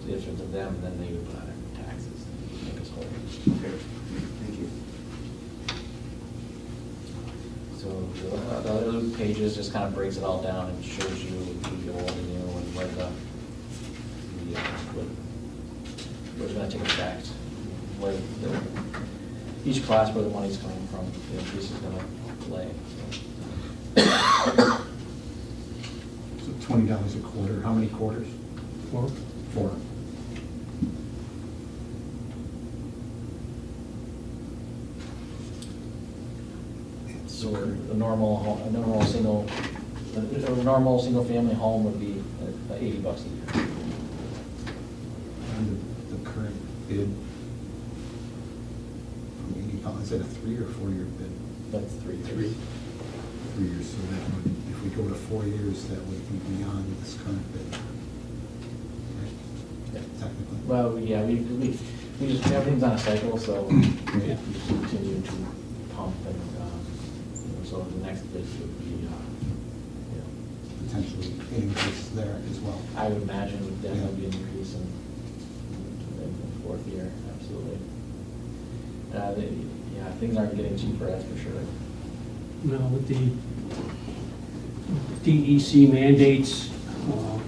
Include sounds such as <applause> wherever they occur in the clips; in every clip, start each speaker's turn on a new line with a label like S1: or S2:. S1: petition to them, and then they would put on their taxes and make us whole.
S2: Okay, thank you.
S1: So the the other pages just kind of breaks it all down and shows you the old and new and where the, the, uh, what, what's gonna take effect, where the, each class where the money's coming from, the increase is gonna lay.
S3: So twenty dollars a quarter, how many quarters?
S4: Four?
S3: Four.
S1: So a normal, ho- a normal single, a a normal single-family home would be uh, eighty bucks a year.
S3: And the, the current bid, from eighty dollars, is that a three or four-year bid?
S1: That's three years.
S3: Three. Three years, so that would, if we go to four years, that would be beyond this current bid. Right?
S1: Yeah.
S3: Technically.
S1: Well, yeah, we, we, we just, everything's on a cycle, so we just continue to pump and, um, you know, so the next bid would be, uh, you
S3: Potentially increase there as well.
S1: know, I would imagine would definitely be an increase in, in the fourth year, absolutely. Uh, they, yeah, things aren't getting cheaper, that's for sure.
S4: No, with the DEC mandates, uh,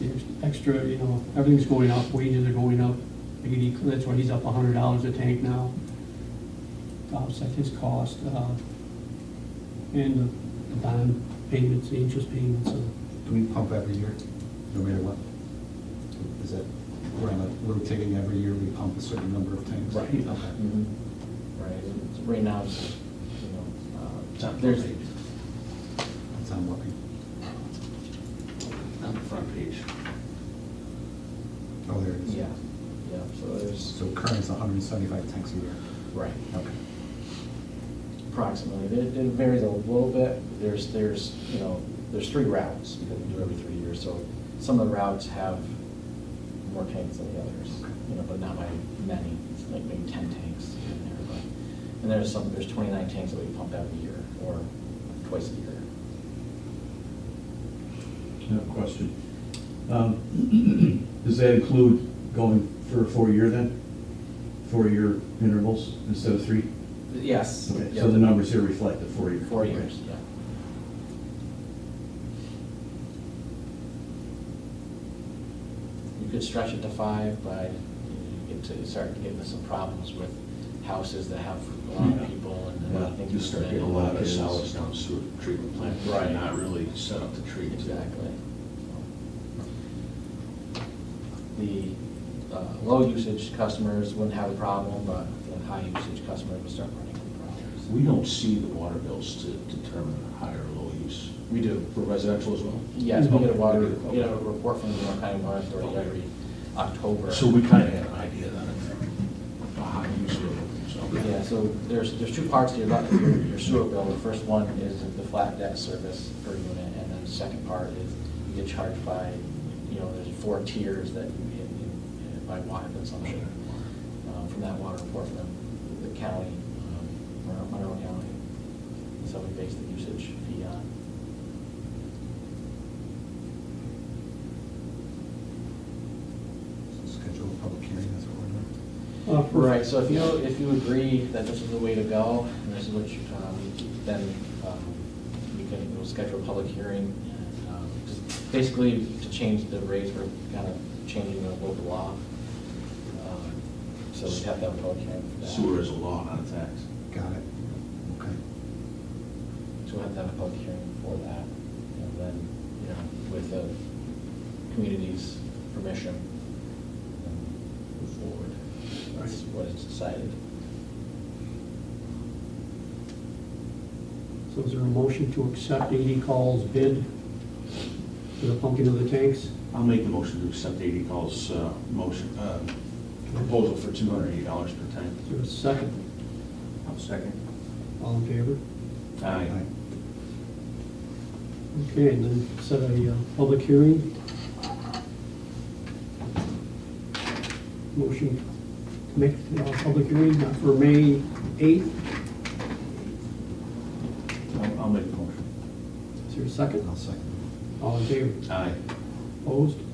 S4: there's extra, you know, everything's going up, wages are going up. Eighty, that's why he's up a hundred dollars a tank now. to Offset his cost, uh, and the bond payments, the interest payments, so
S3: Do we pump every year, no matter what? Is that, we're on a rotating every year, we pump a certain number of tanks?
S1: Right.
S3: Okay.
S1: Mhm. Right, and right now, it's, you know, uh, there's,
S3: That's on what we,
S2: On the front page.
S3: oh, there it is.
S1: yeah, yeah, so there's,
S3: So current's hundred and seventy-five tanks a year.
S1: right.
S3: Okay.
S1: Approximately, it, it varies a little bit, there's, there's, you know, there's three routes, because we do every three years, so some of the routes have more tanks than the others, you know, but not by many, it's like maybe ten tanks in there, but, and there's some, there's twenty-nine tanks that we pump every year, or twice a year.
S5: No question. Um, <clears throat> Does that include going for a four-year then? Four-year intervals instead of three?
S1: Yes.
S5: Okay,
S1: yeah.
S5: So the numbers here reflect the four-year.
S1: Four years, yeah. You could stretch it to five, but you get to, start getting into some problems with houses that have a lot of
S5: Yeah.
S1: people and uh, a lot of things.
S2: You start
S1: that-
S2: getting a lot of solids down sewer treatment plant,
S1: Right.
S2: right, not really set up to treat.
S1: Exactly. The uh, low usage customers wouldn't have a problem, but the high usage customers would start running into problems.
S2: We don't see the water bills to determine high or low use.
S1: We do.
S2: For residential as well?
S1: Yes, we get a water,
S2: Okay.
S1: we get a report from the North County Water Authority every October.
S2: So we kind of have an idea then, of high use or low use. okay.
S1: Yeah, so there's, there's two parts to your, your your sewer bill. The first one is the flat debt service per unit, and then the second part is you get charged by, you know, there's four tiers that you get in- in- by water consumption um, from that water report from the county, um, Mon- Monroe County. So we base the usage fee on.
S3: So Schedule a public hearing, that's what we're doing.
S4: uh, for-
S1: Right, so if you, if you agree that this is the way to go, and this is what you, um, then um, we can, we'll schedule a public hearing. and, um, just Basically, to change the rates, we're kind of changing the local law. Um, So we have to have a public hearing for that.
S2: Sewer is a law, not a tax.
S3: Got it. Okay.
S1: So we'll have to have a public hearing for that. And then, you know, with the community's permission, um, move forward. That's what is decided.
S4: so is there a motion to accept eighty calls bid for the pumping of the tanks?
S2: I'll make the motion to accept AD Call's uh, motion, uh, proposal for two hundred and eighty dollars per tank.
S4: Is there a second?
S2: I'll second.
S4: All in favor?
S2: Aye.
S3: Aye.
S4: Okay, and then set a uh, public hearing. Motion to make a public hearing uh, for May 8th.
S2: I'll, I'll make the motion.
S4: Is there a second?
S3: I'll second.
S4: All in favor?
S2: Aye.
S4: Opposed?